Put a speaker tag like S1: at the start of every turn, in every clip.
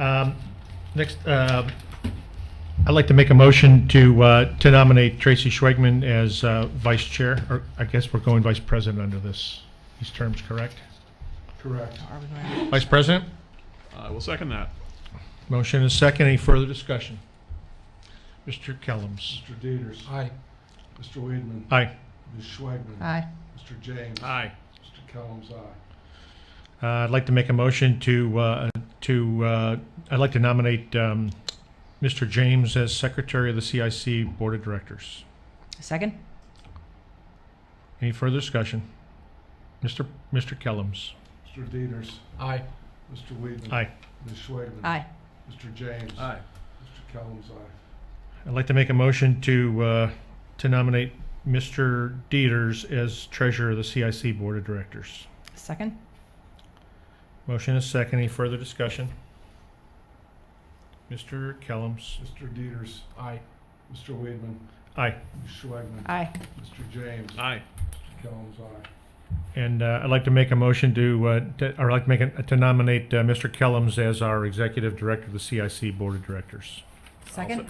S1: Um, Next, uh, I'd like to make a motion to, uh, to nominate Tracy Schweigman as uh, vice chair, or I guess we're going vice president under this, these terms, correct?
S2: Correct.
S3: Are we going
S1: Vice president?
S2: I will second that.
S1: Motion is second. Any further discussion? Mr. Kellums?
S4: Mr. Dieters.
S1: Aye.
S4: Mr. Weedman.
S1: Aye.
S4: Ms. Schwagman.
S3: to- Aye.
S4: Mr. James.
S2: Aye.
S4: Mr. Kellums, aye.
S1: Uh, I'd like to make a motion to, uh, to, uh, I'd like to nominate um, Mr. James as secretary of the CIC Board of Directors.
S3: Second?
S1: Any further discussion? Mr. Mr. Kellums?
S4: Mr. Dieters.
S2: Aye.
S4: Mr. Weedman.
S1: Aye.
S4: Ms. Schwagman.
S3: Aye.
S4: Mr. James.
S2: Aye.
S4: Mr. Kellums, aye.
S1: I'd like to make a motion to, uh, to nominate Mr. Dieters as treasurer of the CIC Board of Directors.
S3: Second?
S1: Motion is second. Any further discussion? Mr. Kellums?
S4: Mr. Dieters.
S2: Aye.
S4: Mr. Weedman.
S1: Aye.
S4: Ms. Schwagman.
S3: Aye.
S4: Mr. James.
S2: Aye.
S4: Mr. Kellums, aye.
S1: And, uh, I'd like to make a motion to, uh, to- or I'd like to make, a- to nominate, uh, Mr. Kellums as our executive director of the CIC Board of Directors.
S3: Second?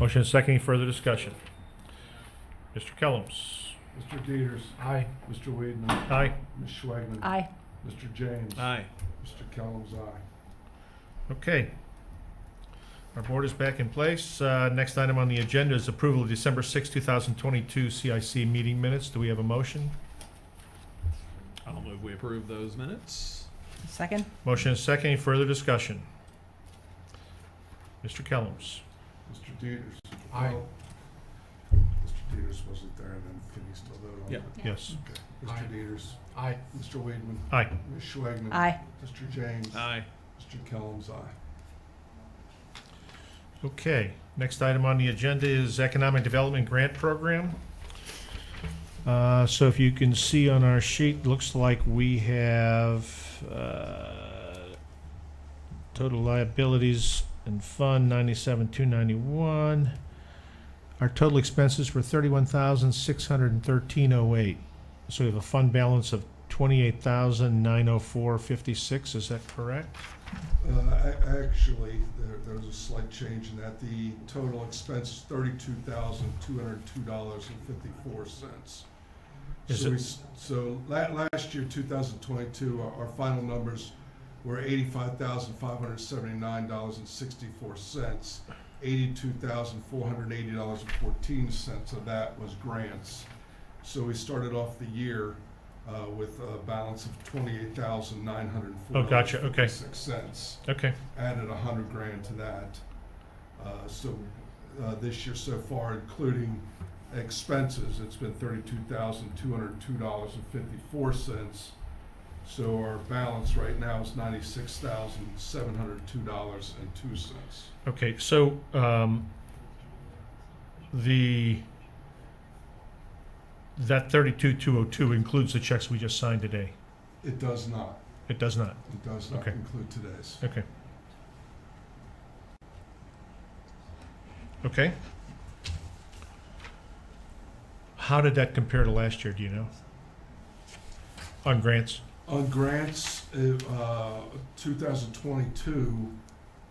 S1: Motion is second. Any further discussion? Mr. Kellums?
S4: Mr. Dieters.
S2: Aye.
S4: Mr. Weedman.
S1: Aye.
S4: Ms. Schwagman.
S3: Aye.
S4: Mr. James.
S2: Aye.
S4: Mr. Kellums, aye.
S1: Okay. Our board is back in place. Uh, Next item on the agenda is approval of December 6, 2022 CIC meeting minutes. Do we have a motion?
S2: I'll move we approve those minutes.
S3: Second?
S1: Motion is second. Any further discussion? Mr. Kellums?
S4: Mr. Dieters.
S2: Aye.
S4: Oh. Mr. Dieters wasn't there, then can he still vote on
S2: Yeah.
S4: it?
S1: Yes.
S4: Okay.
S2: Aye.
S4: Mr. Dieters.
S2: Aye.
S4: Mr. Weedman.
S1: Aye.
S4: Ms. Schwagman.
S3: Aye.
S4: Mr. James.
S2: Aye.
S4: Mr. Kellums, aye.
S1: Okay. Next item on the agenda is Economic Development Grant Program. Uh, So if you can see on our sheet, looks like we have uh, total liabilities and fund ninety-seven, two ninety-one. Our total expenses were thirty-one thousand, six hundred and thirteen oh eight. So we have a fund balance of twenty-eight thousand, nine oh four, fifty-six. Is that correct?
S4: Uh, a- Actually, there, there was a slight change in that. The total expense is thirty-two thousand, two hundred and two dollars and fifty-four cents.
S1: Is
S4: So
S1: it-
S4: we, s- so la- last year, two thousand twenty-two, our, our final numbers were eighty-five thousand, five hundred and seventy-nine dollars and sixty-four cents. Eighty-two thousand, four hundred and eighty dollars and fourteen cents of that was grants. So we started off the year, uh, with a balance of twenty-eight thousand, nine hundred and four
S1: Oh,
S4: dollars.
S1: gotcha. Okay.
S4: Six cents
S1: Okay.
S4: added a hundred grand to that. Uh, So uh, this year so far, including expenses, it's been thirty-two thousand, two hundred and two dollars and fifty-four cents. So our balance right now is ninety-six thousand, seven hundred and two dollars and two cents.
S1: Okay, so, um, the, that thirty-two, two oh two includes the checks we just signed today?
S4: It does not,
S1: It does not,
S4: it does not
S1: Okay.
S4: include today's.
S1: okay. Okay. How did that compare to last year, do you know? On grants?
S4: On grants, it, uh, 2022,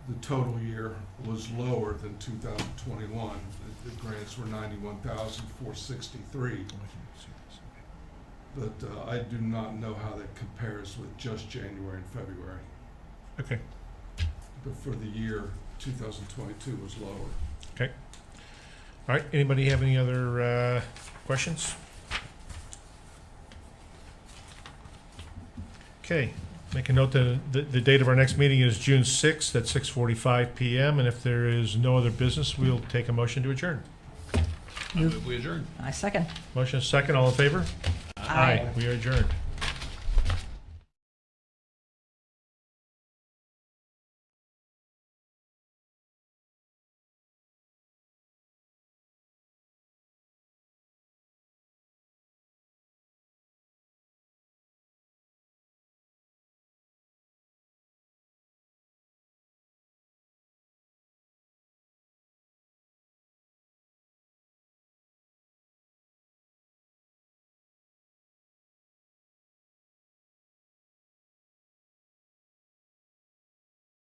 S4: the total year was lower than 2021. The- The grants were 91,463, but uh, I do not know how that compares with just January and February.
S1: Okay,
S4: But for the year, 2022 was lower.
S1: all right, anybody have any other, uh, questions? Okay, make a note that the, the date of our next meeting is June sixth at six forty-five PM, and if there is no other business, we'll take a motion to adjourn.
S2: I move we adjourn.
S3: I second.
S1: Motion is second, all in favor?
S3: Aye.
S1: We are adjourned.